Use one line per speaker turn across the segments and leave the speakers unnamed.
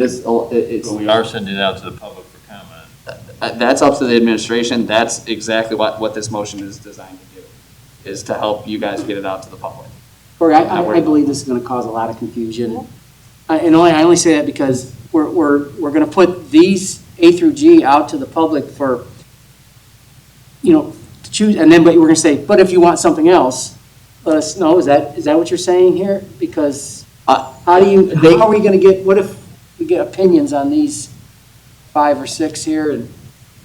This, oh, it- it's,
But we are sending it out to the public for comment.
uh, that's up to the administration, that's exactly what, what this motion is designed to do, is to help you guys get it out to the public.
Cory, I, I- I believe this is gonna cause a lot of confusion. I- And only, I only say that because we're, we're, we're gonna put these A through G out to the public for, you know, to choose, and then, but we're gonna say, but if you want something else, let us know, is that, is that what you're saying here? Because
Uh,
how do you,
they-
how are we gonna get, what if we get opinions on these five or six here and,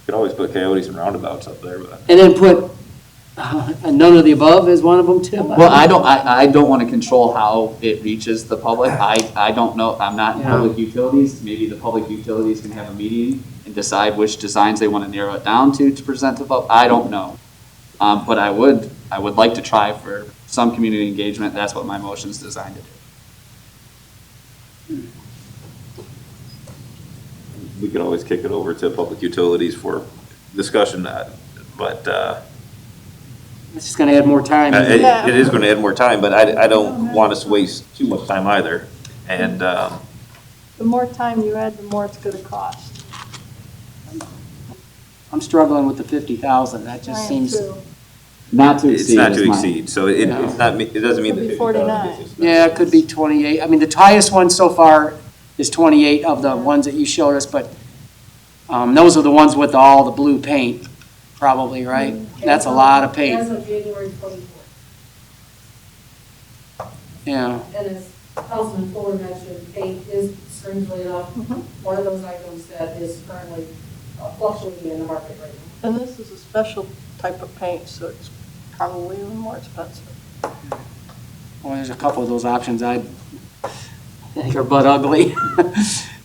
Could always put coyotes and roundabouts up there, but
and then put, uh, and none of the above is one of them too?
Well, I don't, I, I don't want to control how it reaches the public. I, I don't know, I'm not in
Yeah.
public utilities. Maybe the public utilities can have a meeting and decide which designs they want to narrow it down to, to present to the public. I don't know. Um, but I would, I would like to try for some community engagement. That's what my motion's designed to do.
we could always kick it over to public utilities for discussion, uh, but, uh,
It's just gonna add more time.
it, it is gonna add more time, but I, I don't want us to waste too much time either. And, um,
The more time you add, the more it's gonna cost.
I'm struggling with the fifty thousand, that just seems,
Not to
it's
exceed
not
is
to
mine.
exceed, so it,
No.
it's not, me- it doesn't mean.
Could
that
be
50,000
49.
is just not-
yeah, it could be twenty-eight, I mean, the highest one so far is twenty-eight of the ones that you showed us, but, um, those are the ones with all the blue paint, probably, right? That's a lot of
As
paint,
of January twenty-fourth,
yeah,
and as Councilman Fuller mentioned, paint is strangely enough,
Mhm.
one of those items that is currently uh, fluctuating in the market right now.
And this is a special type of paint, so it's probably even more expensive.
well, there's a couple of those options I think are butt ugly.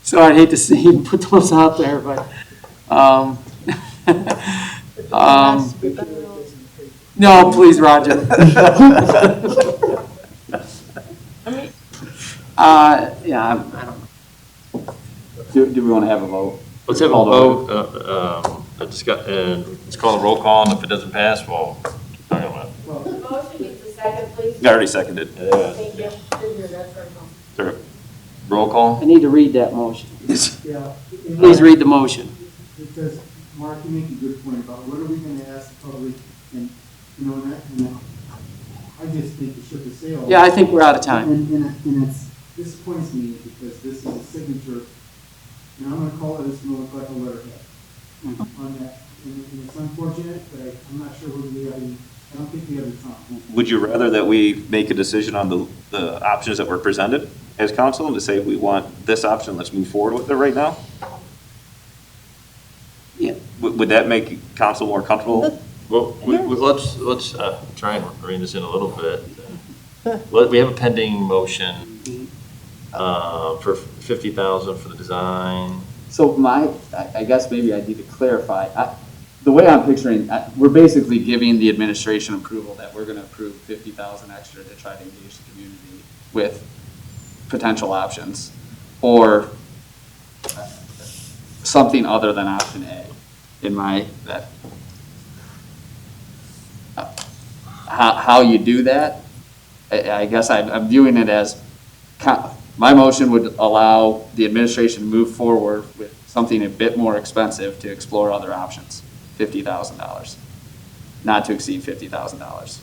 So I'd hate to see you put those out there, but, um,
If it's
Um,
nice, we better know.
no, please, Roger.
I mean,
Uh, yeah, I'm- I don't know.
Do, do we want to have a vote?
Let's have a
Call the
vote, uh, um, a discuss, and let's call a roll call, and if it doesn't pass, we'll keep talking about it.
Motion is the second, please.
I already seconded.
Thank you. Didn't hear that very well.
Roll call?
I need to read that motion.
Yeah. you know,
Please read the motion.
Because, Mark, you make a good point about what are we gonna ask the public, and, you know, and I, and I, I just think it should have sailed.
Yeah, I think we're out of time.
And, and, it- and it's, this points me because this is a signature, and I'm gonna call it a small like a letterhead
Mm-hmm.
on that. And, and it's unfortunate, but I, I'm not sure whether we have, any- I don't think we have the time.
Would you rather that we make a decision on the, the options that were presented as council and to say, we want this option, let's move forward with it right now?
Yeah.
Would, would that make council more comfortable?
Well, we- we- let's, let's uh, try and rein this in a little bit. Let- We have a pending motion uh, for 50,000 for the design.
So my, I, I guess maybe I need to clarify, I, the way I'm picturing, I, we're basically giving the administration approval that we're gonna approve fifty thousand extra to try to engage the community with potential options, or uh, something other than option A, in my, that. uh, How, how you do that, I, I guess I'm, I'm viewing it as co- my motion would allow the administration to move forward with something a bit more expensive to explore other options, fifty thousand dollars, not to exceed fifty thousand dollars.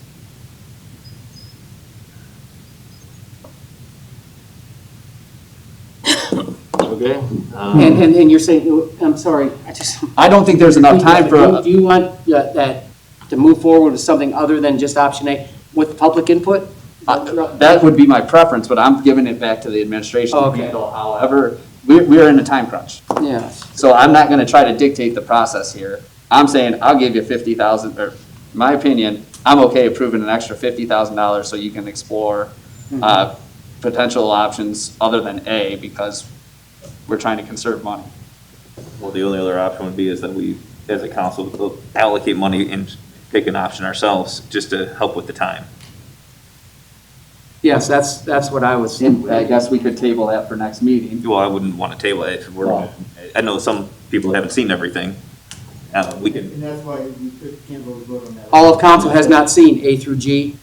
Okay?
Hmm.
Um,
And, and, and you're saying, I'm sorry, I just.
I don't think there's enough time for,
Do you want that, that to move forward with something other than just option A with public input?
uh, that would be my preference, but I'm giving it back to the administration to
Okay.
handle however, we're, we're in a time crunch.
Yes.
So I'm not gonna try to dictate the process here. I'm saying, I'll give you fifty thousand, or, my opinion, I'm okay approving an extra fifty thousand dollars so you can explore, uh, potential options other than A, because we're trying to conserve money.
Well, the only other option would be is that we, as a council, allocate money and pick an option ourselves just to help with the time.
Yes, that's, that's what I was.
And I guess we could table that for next meeting.
Well, I wouldn't want to table it. We're, all- I know some people haven't seen everything. Uh, we can,
And that's why we could- can't really vote on that.
All of council has not seen A through G,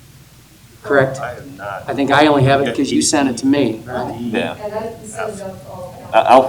correct?
I have not
I think I only have it because you sent it to me, right?
yeah. Uh,
And that sums up all.
I- I'll